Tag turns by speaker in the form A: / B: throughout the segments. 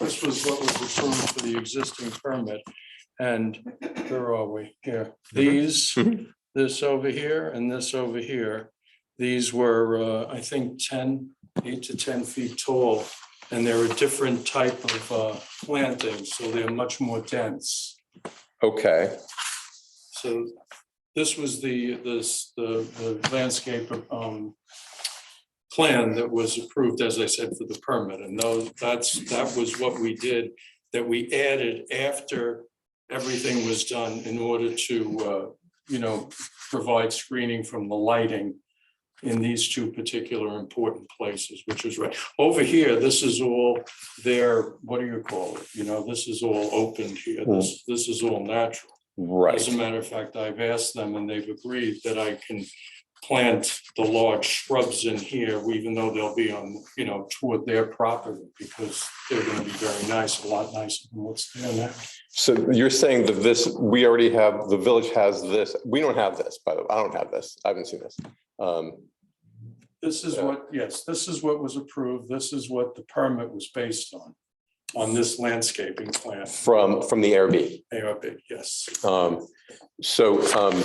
A: This was what was approved for the existing permit. And where are we? Here, these,
B: Mhm.
A: this over here and this over here. These were, uh, I think, 10, eight to ten feet tall. And they're a different type of uh, planting, so they're much more dense.
B: Okay,
A: So this was the, this, the the landscape um, plan that was approved, as I said, for the permit. And those, that's, that was what we did, that we added after everything was done in order to, uh, you know, provide screening from the lighting in these two particular important places, which is right. Over here, this is all their, what do you call it? You know, this is all opened here. This, this is all natural. As
B: right.
A: a matter of fact, I've asked them and they've agreed that I can plant the large shrubs in here, even though they'll be on, you know, toward their property because they're gonna be very nice, a lot nicer than what's there now.
B: So you're saying that this, we already have, the village has this. We don't have this, by the way. I don't have this. I haven't seen this. Um,
A: This is what, yes, this is what was approved. This is what the permit was based on, on this landscaping plan.
B: From, from the ARB.
A: ARB, yes.
B: Um, So um,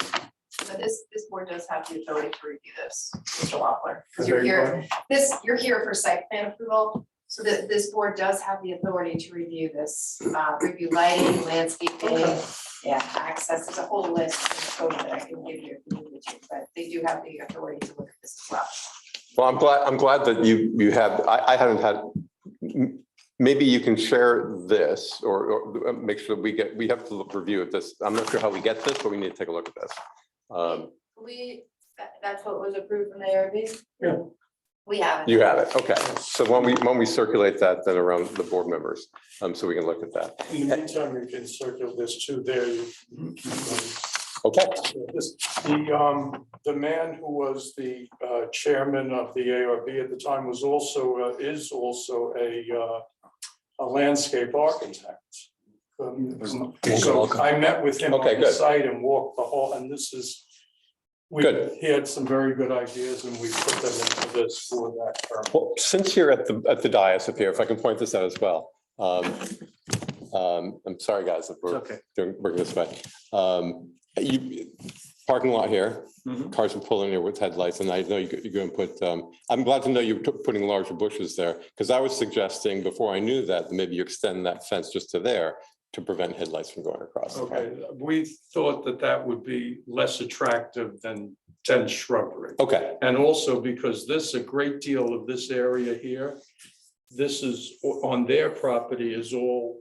C: So this, this board does have the ability to review this, Mr. Wampler. Because you're here, this, you're here for site plan approval. So that this board does have the authority to review this, uh, review lighting, landscaping, yeah, access. There's a whole list of code that I can give you, if you need to, but they do have the authority to look at this as well.
B: Well, I'm glad, I'm glad that you, you have, I, I haven't had, m- maybe you can share this or, or uh, make sure we get, we have to look, review of this. I'm not sure how we get this, but we need to take a look at this. Um,
C: We, that, that's what was approved from the ARB?
A: Yeah.
C: We have it.
B: You have it, okay. So when we, when we circulate that, then around the board members, um, so we can look at that.
A: In the meantime, you can circle this too there. You keep going.
B: Okay,
A: This- The, um, the man who was the uh, chairman of the ARB at the time was also, uh, is also a, uh, a landscape architect. Um, So I met with him
B: Okay,
A: on the
B: good.
A: site and walked the hall, and this is, we,
B: Good.
A: he had some very good ideas and we put them into this for that term.
B: well, since you're at the, at the dais up here, if I can point this out as well. Um, um, I'm sorry, guys, if we're
A: Okay.
B: doing, working this way. Um, you, parking lot here, cars are pulling in with headlights, and I know you- you're going to put, um, I'm glad to know you're t- putting larger bushes there, because I was suggesting before I knew that, that maybe you extend that fence just to there to prevent headlights from going across.
A: Okay, we thought that that would be less attractive than dense shrubbery.
B: Okay,
A: And also because this, a great deal of this area here, this is, on their property is all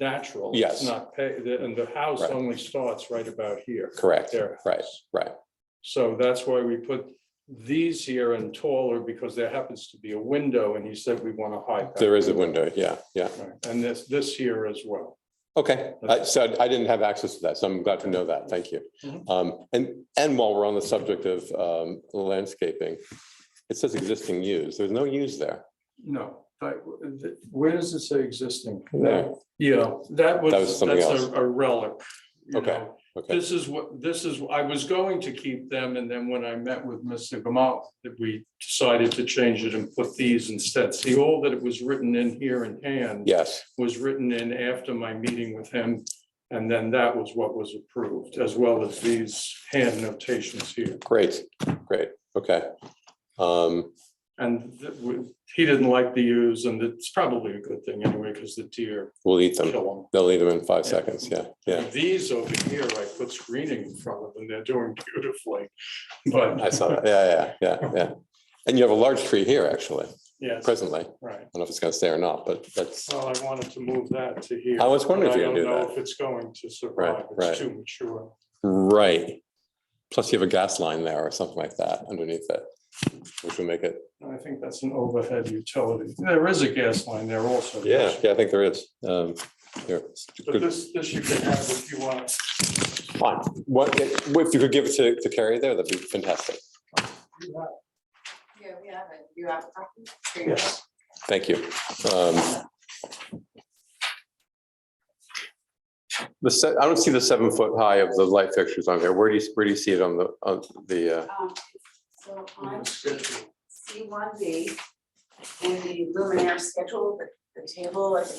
A: natural. It's
B: Yes.
A: Not paved, and the house
B: Right.
A: only starts right about here.
B: correct,
A: Their
B: Right.
A: house.
B: right.
A: So that's why we put these here and taller, because there happens to be a window, and he said we want to hide. that.
B: There is a window, yeah, yeah.
A: Right, And this, this here as well.
B: Okay, I- so I didn't have access to that, so I'm glad to know that, thank you.
A: Mhm.
B: Um, And, and while we're on the subject of um, landscaping, it says existing use, there's no use there.
A: No, but where does it say existing?
B: There.
A: Yeah, that was,
B: That was something
A: that's
B: else.
A: a a relic. you
B: Okay.
A: know,
B: Okay,
A: This is what, this is, I was going to keep them, and then when I met with Mr. Gamal, that we decided to change it and put these instead. See, all that it was written in here in hand
B: yes,
A: was written in after my meeting with him, and then that was what was approved, as well as these hand notations here.
B: great, great, okay. Um,
A: And th- we- he didn't like the use, and it's probably a good thing anyway, because the deer
B: We'll eat them.
A: kill them.
B: They'll eat them in five
A: Yeah.
B: seconds. Yeah, yeah.
A: These over here, I put screening in front of them, they're doing beautifully, but.
B: I saw that. Yeah, yeah, yeah, yeah. And you have a large tree here, actually,
A: Yes,
B: presently. I don't
A: right.
B: know if it's gonna stay or not, but that's,
A: Well, I wanted to move that to here.
B: I was wondering if
A: but
B: you're gonna
A: I don't
B: do
A: know
B: that.
A: If it's going to survive,
B: right.
A: it's too mature.
B: Right. Plus you have a gas line there or something like that underneath it, which will make it,
A: I think that's an overhead utility. There is a gas line there also.
B: yeah, yeah, I think there is. Um, here.
A: But this, this you can have if you want.
B: Fine. What, if you could give it to, to Carrie there, that'd be fantastic.
C: Yeah, we have it. You have a copy? Here you go.
A: Yes.
B: Thank you. Um, The, se- I don't see the seven foot high of the light fixtures on there. Where do you, where do you see it on the, on the, uh,
C: Um, So on
A: Schedule.
C: C one B, in the luminaire schedule, the the table at the